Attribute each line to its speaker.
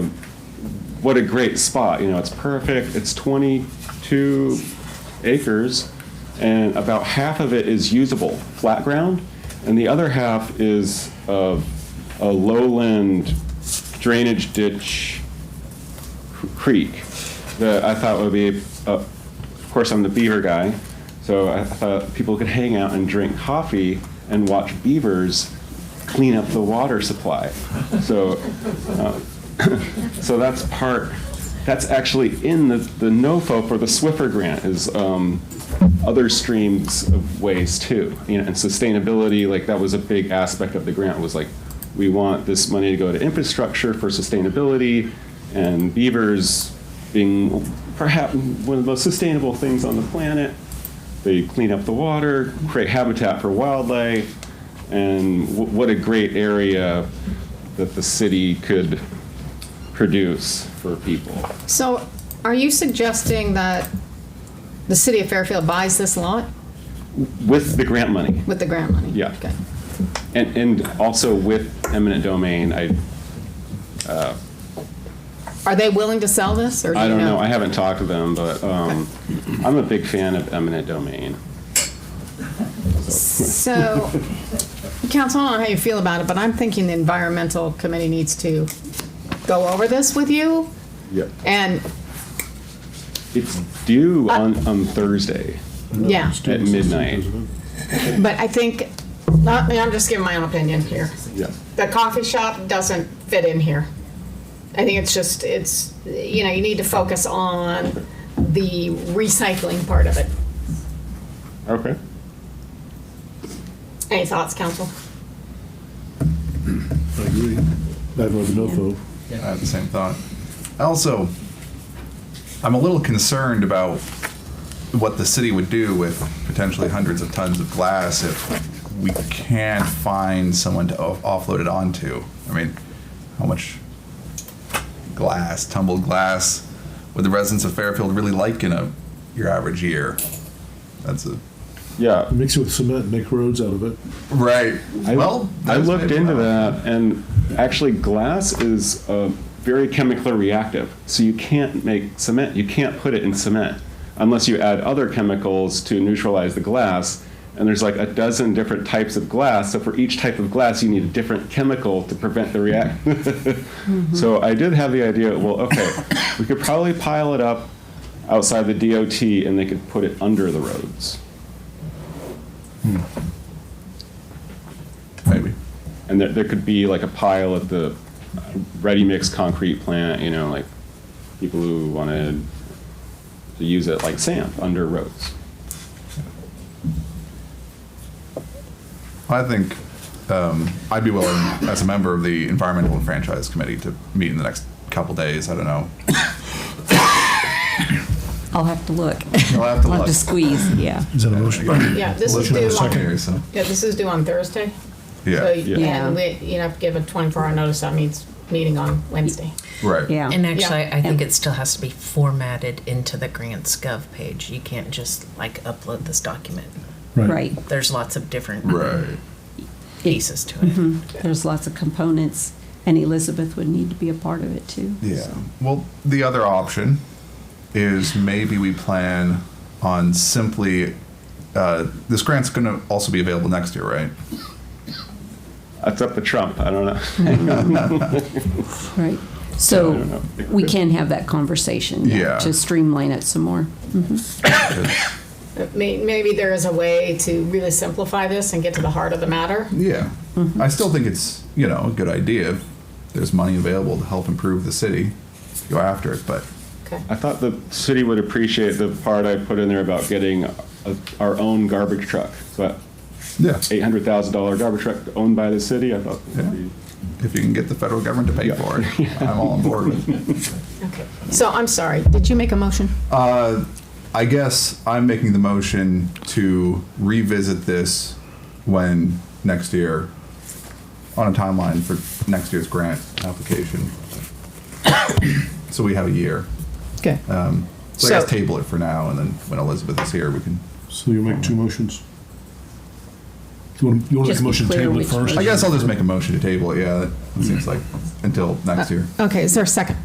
Speaker 1: what a great spot. You know, it's perfect. It's 22 acres, and about half of it is usable flat ground, and the other half is uh, a lowland drainage ditch cr- creek that I thought would be, uh, of course, I'm the beaver guy, so I thought people could hang out and drink coffee and watch beavers clean up the water supply. So, uh, so that's part, that's actually in the, the NOFO for the Swiffer grant is um, other streams of ways too. You know, and sustainability, like that was a big aspect of the grant was like, we want this money to go to infrastructure for sustainability and beavers being perhaps one of the most sustainable things on the planet. They clean up the water, create habitat for wildlife, and w- what a great area that the city could produce for people.
Speaker 2: So are you suggesting that the city of Fairfield buys this lot
Speaker 1: With the grant money,
Speaker 2: with the grant money?
Speaker 1: Yeah.
Speaker 2: Okay.
Speaker 1: and, and also with eminent domain, I,
Speaker 2: Are they willing to sell this, or do
Speaker 1: I
Speaker 2: you know?
Speaker 1: don't know, I haven't talked to them, but um, I'm a big fan of eminent domain.
Speaker 2: So, council, I don't know how you feel about it, but I'm thinking the environmental committee needs to go over this with you,
Speaker 1: Yeah.
Speaker 2: and,
Speaker 1: It's due on, on Thursday
Speaker 2: yeah.
Speaker 1: at midnight.
Speaker 2: But I think, I mean, I'm just giving my own opinion here.
Speaker 1: Yeah.
Speaker 2: The coffee shop doesn't fit in here. I think it's just, it's, you know, you need to focus on the recycling part of it.
Speaker 1: Okay.
Speaker 2: Any thoughts, council?
Speaker 3: I agree. I'd rather no vote.
Speaker 4: I had the same thought. Also, I'm a little concerned about what the city would do with potentially hundreds of tons of glass if we can't find someone to off- offload it onto. I mean, how much glass, tumbled glass, would the residents of Fairfield really like in a your average year? That's a
Speaker 1: Yeah,
Speaker 3: Mix it with cement, and make roads out of it.
Speaker 4: right.
Speaker 1: I,
Speaker 4: well,
Speaker 1: I
Speaker 4: that's
Speaker 1: looked
Speaker 4: maybe
Speaker 1: into
Speaker 4: not-
Speaker 1: that, and actually, glass is uh, very chemically reactive. So you can't make cement. You can't put it in cement unless you add other chemicals to neutralize the glass. And there's like a dozen different types of glass. So for each type of glass, you need a different chemical to prevent the react. So I did have the idea. Well, okay, we could probably pile it up outside the DOT, and they could put it under the roads.
Speaker 4: Maybe.
Speaker 1: And there, there could be like a pile at the ready-mix concrete plant, you know, like people who wanted to use it like sand under roads.
Speaker 4: I think um, I'd be willing, as a member of the Environmental and Franchise Committee, to meet in the next couple days. I don't know.
Speaker 5: I'll have to look.
Speaker 4: You'll have to
Speaker 5: I'll have
Speaker 4: look.
Speaker 5: to squeeze, yeah.
Speaker 3: Is that a motion?
Speaker 2: Yeah, this is
Speaker 4: Listen to
Speaker 2: due
Speaker 4: the
Speaker 2: on,
Speaker 4: secretary, so-
Speaker 2: yeah, this is due on Thursday. So,
Speaker 4: Yeah,
Speaker 5: Yeah.
Speaker 2: and we, you have to give a 24-hour notice, that means meeting on Wednesday.
Speaker 4: right.
Speaker 5: Yeah.
Speaker 6: And actually,
Speaker 2: Yeah.
Speaker 6: I think it still has to be formatted into the grants gov page. You can't just like upload this document.
Speaker 5: Right.
Speaker 6: There's lots of different
Speaker 4: Right.
Speaker 6: pieces to it.
Speaker 2: Mm-hmm.
Speaker 5: There's lots of components, and Elizabeth would need to be a part of it too.
Speaker 4: Yeah. Well, the other option is maybe we plan on simply. Uh, this grant's going to also be available next year, right?
Speaker 1: That's up to Trump, I don't know. I
Speaker 5: Right.
Speaker 1: don't
Speaker 5: So
Speaker 1: know.
Speaker 5: we can have that conversation
Speaker 4: Yeah.
Speaker 5: yeah, to streamline it some more.
Speaker 2: But may- Maybe there is a way to really simplify this and get to the heart of the matter.
Speaker 4: Yeah. Mm-hmm. I still think it's you know a good idea if there's money available to help improve the city. Go after it, but
Speaker 2: Okay.
Speaker 1: I thought the city would appreciate the part I put in there about getting a- our own garbage truck. So
Speaker 4: yeah,
Speaker 1: eight hundred thousand dollar garbage truck owned by the city, I thought. that'd be-
Speaker 4: if you can get the federal government to pay for it, I'm all on board with it.
Speaker 2: Okay. So I'm sorry, did you make a motion?
Speaker 4: Uh, I guess I'm making the motion to revisit this when next year, on a timeline for next year's grant application. So we have a year. Um,
Speaker 2: Okay.
Speaker 4: uh, So I guess
Speaker 2: So-
Speaker 4: table it for now, and then when Elizabeth is here, we can,
Speaker 3: So you make two motions. You want to make
Speaker 5: Just
Speaker 3: a
Speaker 5: be
Speaker 3: motion to
Speaker 5: clear
Speaker 3: table it
Speaker 5: which
Speaker 3: first?
Speaker 5: one.
Speaker 4: I guess I'll just make a motion to table it, yeah, that seems like, until next year.
Speaker 2: Okay, is there a second?